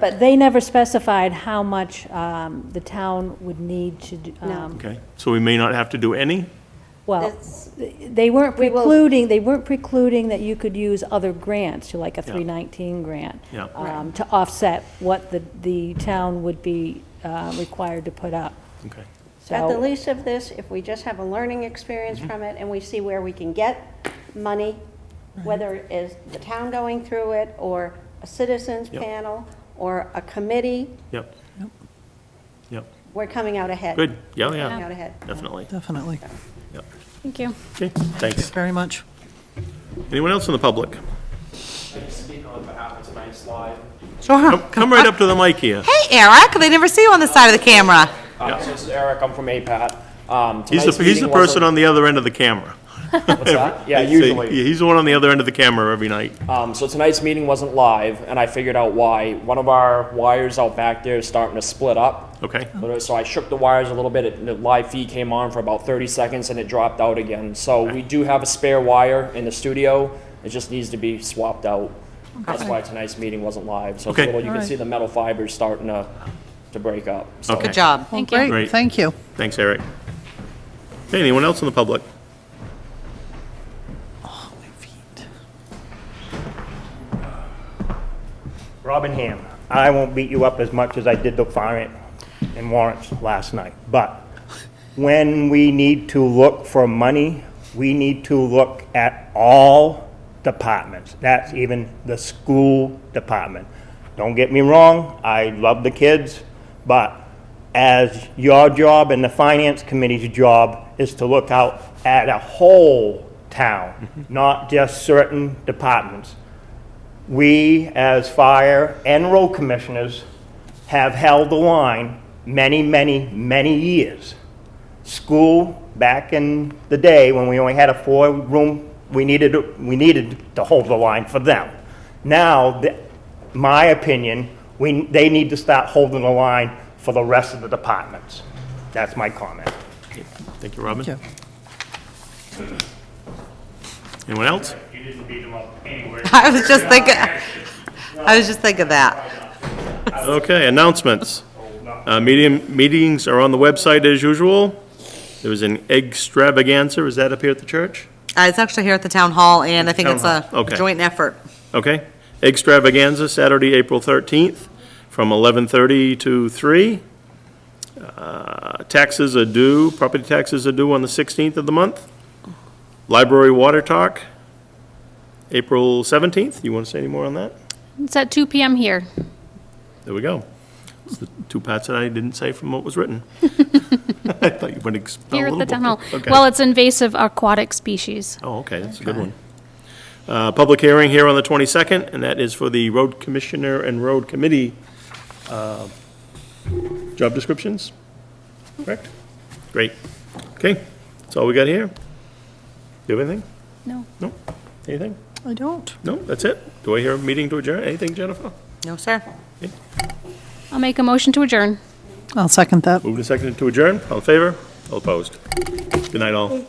But they never specified how much um, the town would need to, do- um, Okay, so we may not have to do any? well, That's- they weren't We will- precluding, they weren't precluding that you could use other grants, so like a Yeah. 319 grant, Yeah. um, to offset what the, the town would be uh, required to put up. Okay, At the So- least of this, if we just have a learning experience Mm-hmm. from it and we see where we can get money, Mm-hmm. whether it is the town going through it or a citizens Yep. panel or a committee, yep. Yep, we're coming out ahead. good, Oh, yeah, Coming out yeah, ahead. definitely, Definitely. yep. Thank you. Okay, thanks. Very much. Anyone else in the public? I can speak on behalf of tonight's live. Sure. Come come right up to the mic here. Hey, Eric, they never see you on the side of the camera. Uh, So this is Eric, I'm from APAT. Um, He's tonight's the, he's the meeting was person a- on the other end of the camera. What's that? Yeah, So, usually. He's the one on the other end of the camera every night. Um, So tonight's meeting wasn't live, and I figured out why. One of our wires out back there is starting to split up. Okay, Literally, So I shook the wires a little bit, and the live feed came on for about 30 seconds, and it dropped out again. So we do have a spare wire in the studio. It just needs to be swapped out. That's why tonight's meeting wasn't live. So it's a Okay. little- you can Alright. see the metal fibers starting to, to break up. So- Okay. Good job. Thank Great, you. Great. Thank you. thanks, Eric. Okay, anyone else in the public? Robin Ham, I won't beat you up as much as I did the warrant and warrants last night, but when we need to look for money, we need to look at all departments. That's even the school department. Don't get me wrong, I love the kids, but as your job and the finance committee's job is to look out at a whole town, not just certain departments we, as fire and road commissioners, have held the line many, many, many years. School, back in the day, when we only had a four-room, we needed, we needed to hold the line for them. Now, th- my opinion, we, they need to start holding the line for the rest of the departments. That's my comment. Thank you, Robin. Thank you. Anyone else? You didn't beat him up anywhere. I was just thinking, I was just thinking that. Okay, announcements. Uh, Medium, meetings are on the website as usual. There was an extravaganza, is that up here at the church? Uh, It's actually here at the town hall, and I think it's Town a hall, okay. joint effort. Okay. Extravaganza, Saturday, April 13th, from 11:30 to 3. Uh, Taxes are due, property taxes are due on the 16th of the month. Library Water Talk, April 17th. You want to say any more on that? It's at 2 PM here. There we go. It's the two parts that I didn't say from what was written. I thought you would expel a Here little at the bit. town hall. Okay. Well, it's invasive aquatic species. Oh, okay, that's a good one. Uh, Public hearing here on the 22nd, and that is for the road commissioner and road committee uh, job descriptions, correct? Great. Okay, that's all we got here. Do you have anything? No. No? Anything? I don't. No, that's it? Do I hear a meeting to adjourn? Anything, Jennifer? No, sir. I'll make a motion to adjourn. I'll second that. Moved and seconded to adjourn. All in favor? All opposed? Good night, all.